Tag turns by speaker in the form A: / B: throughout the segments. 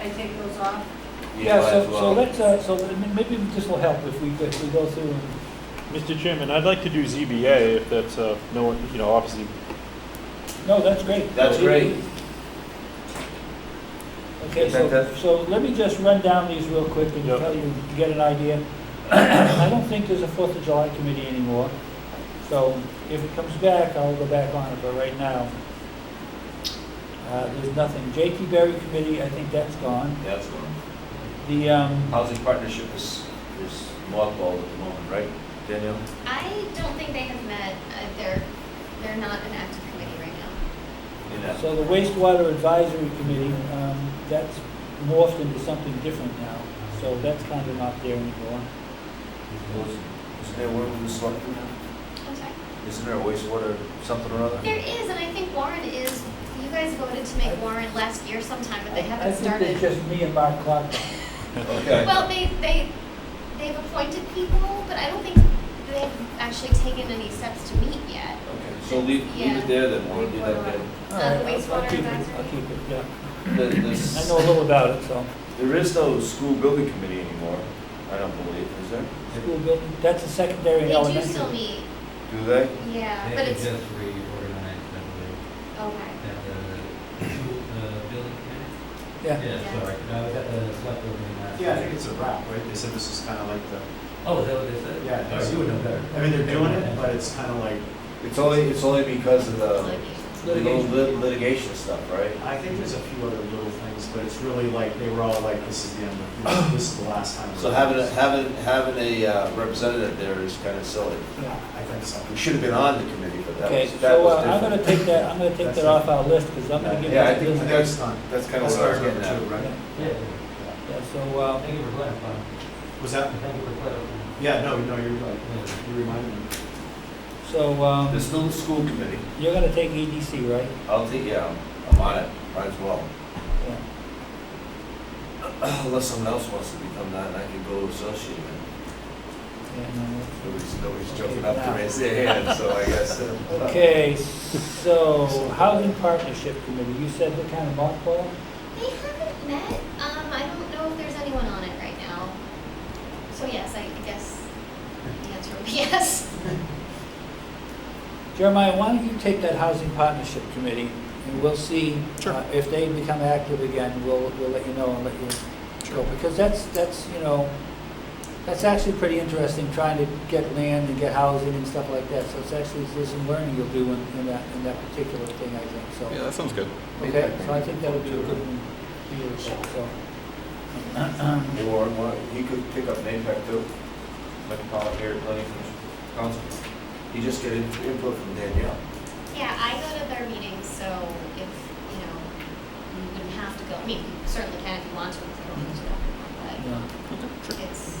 A: I take those off?
B: Yeah,
C: might
B: so,
C: as
B: so
C: well.
B: let's, uh, so m- maybe this will help if we, if we go through and,
D: Mr. Chairman, I'd like to do ZBA if that's, uh, no one, you know, obviously,
B: no, that's great.
C: That's great.
B: Okay, so,
C: Fantastic.
B: so let me just run down these real quick and
D: Yep.
B: tell you, get an idea. I don't think there's a Fourth of July committee anymore, so if it comes back, I'll go back on it, but right now, uh, there's nothing. J.T. Berry Committee, I think that's gone.
C: That's one.
B: The, um,
C: Housing partnership is, is mothballed at the moment, right, Danielle?
E: I don't think they have met, uh, they're, they're not an active committee right now.
C: In that-
B: so the wastewater advisory committee, um, that's morphed into something different now, so that's kind of not there anymore.
C: Was- Isn't there one with the selectmen now?
E: I'm sorry.
C: Isn't there a wastewater, something or other?
E: There is, and I think Warren is, you guys voted to make Warren last year sometime, but they
B: I
E: haven't
B: think it's
E: started.
B: just me and Mark Clark.
C: Okay.
E: Well, they, they, they've appointed people, but I don't think they've actually taken any steps to meet yet.
C: Okay, so leave, leave
E: Yeah.
C: it there then, Warren, you like that.
B: All right, I'll- I'll
E: wastewater
B: keep it- I'll
E: advisory?
B: keep it, yeah.
C: The- this-
B: I know a little about it, so.
C: There is no school building committee anymore, I don't believe, is there?
B: School building, that's a secondary
E: They
B: and
E: do
B: elementary.
E: still meet,
C: Do they?
E: yeah, but
F: They
E: it's,
F: just reorganized, I believe,
E: okay.
F: at the, the building committee?
B: Yeah,
E: Yeah.
F: Yeah, sorry, I was at the select board meeting last.
G: Yeah, I think
F: week.
G: it's a wrap, right? They said this is kind of like the,
F: Oh, is that what they said?
G: Yeah, I think
F: Oh,
G: so.
F: you would know better.
G: I mean, they're doing it, but it's kind of like,
C: It's only, it's only because of
E: it's
B: Uh,
C: the
E: like you-
C: the little lit- litigation stuff, right?
G: I think there's a few other little things, but it's really like, they were all like, this is the end of, this is the last time. we're
C: So
G: doing
C: having, a-
G: this.
C: having, having a uh, representative there is kind of silly.
B: yeah.
G: I think so.
C: We should have been on the committee, but that
B: Okay,
C: was, that
B: so uh,
C: was
B: I'm
C: different.
B: gonna take that, I'm gonna take
G: That's
B: that
G: it.
B: off our list, because I'm gonna
G: Yeah,
B: give it
C: yeah, I
B: to
C: think
B: this.
C: that's-
G: It's done.
C: That's kind of
G: That's
C: what
G: what I remember
C: I was getting at.
G: too, right?
F: Yeah,
B: Yeah, so, uh,
F: thank you for clarifying,
G: Was that,
F: thank you for clarifying.
G: yeah, no, no, you're right.
F: Yeah.
G: You reminded me.
B: so, um,
C: This little school committee,
B: you're gonna take EDC, right?
C: I'll take, yeah, I'm on it, might as well.
B: Yeah.
C: Unless someone else wants to become that, and I can go associate it.
B: And,
C: Nobody's, nobody's
B: Okay,
C: jumping up
B: now.
C: to raise their hand, so I guess. uh,
B: uh, Okay, so Housing Partnership Committee, you said what kind of mothball?
E: They haven't met, um, I don't know if there's anyone on it right now. So yes, I guess the answer would be yes.
B: Jeremiah, why don't you take that Housing Partnership Committee, and we'll see uh, if they become active again, we'll, we'll let you know and let you go. Because that's, that's, you know, that's actually pretty interesting, trying to get land and get housing and stuff like that. So it's actually, there's some learning you'll do in, in that, in that particular thing, I think, so.
H: Yeah, that sounds good.
B: Okay, so I think that would be a good one for you, so.
C: Or, what- he could pick up NAPEC too, Metropolitan Area Planning Commission, Council. He just get in- input from Danielle.
E: Yeah, I go to their meetings, so if, you know, you wouldn't have to go, I mean, you certainly can if you want to, if you don't need to.
B: Yeah.
E: But it's,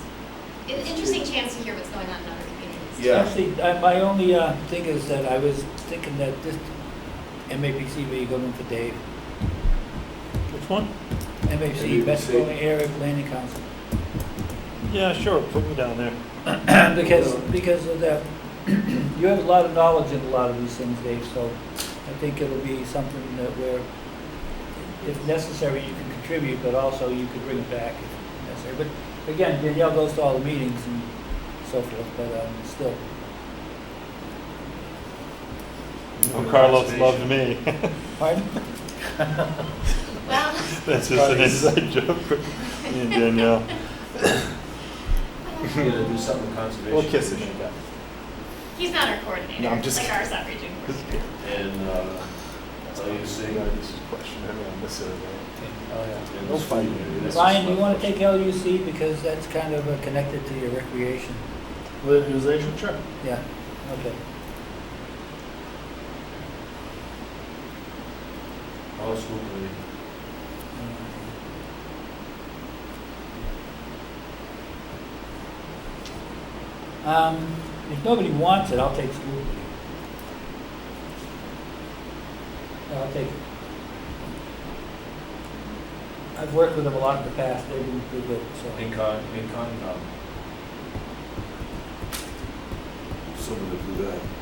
E: it's an interesting chance to hear what's going on in other communities.
C: Yeah.
B: Actually, I- my only uh, thing is that I was thinking that this MAPC would be going for Dave.
D: which one?
B: MAPC, Best
C: MAPC.
B: Growing Area Planning Council.
D: Yeah, sure, put me down there.
B: Because, because of that, you have a lot of knowledge in a lot of these things, Dave, so I think it'll be something that where, if necessary, you can contribute, but also you could bring it back if necessary. But again, Danielle goes to all the meetings and so forth, but um, still.
D: Well, Oh, Carlos loved me.
B: Pardon?
E: Well,
D: That's just an inside joke for me and Danielle.
C: You gotta do something with conservation.
D: We'll kiss it.
E: he's not our coordinator,
D: No, I'm just
E: like our soccer team coordinator.
C: And, uh, so you see.
D: This is a question, I mean, this is, uh,
C: and
D: We'll
C: this
D: find
C: community,
D: it.
C: this is
B: Ryan, do you
C: what-
B: want to take LUC because that's kind of uh, connected to your recreation?
D: Litigation, sure.
B: Yeah, okay.
C: Oh, school committee.
B: Um, if nobody wants it, I'll take school. I'll take it. I've worked with them a lot in the past, they've been pretty good, so.
C: Incon, incon, um. Someone to do that.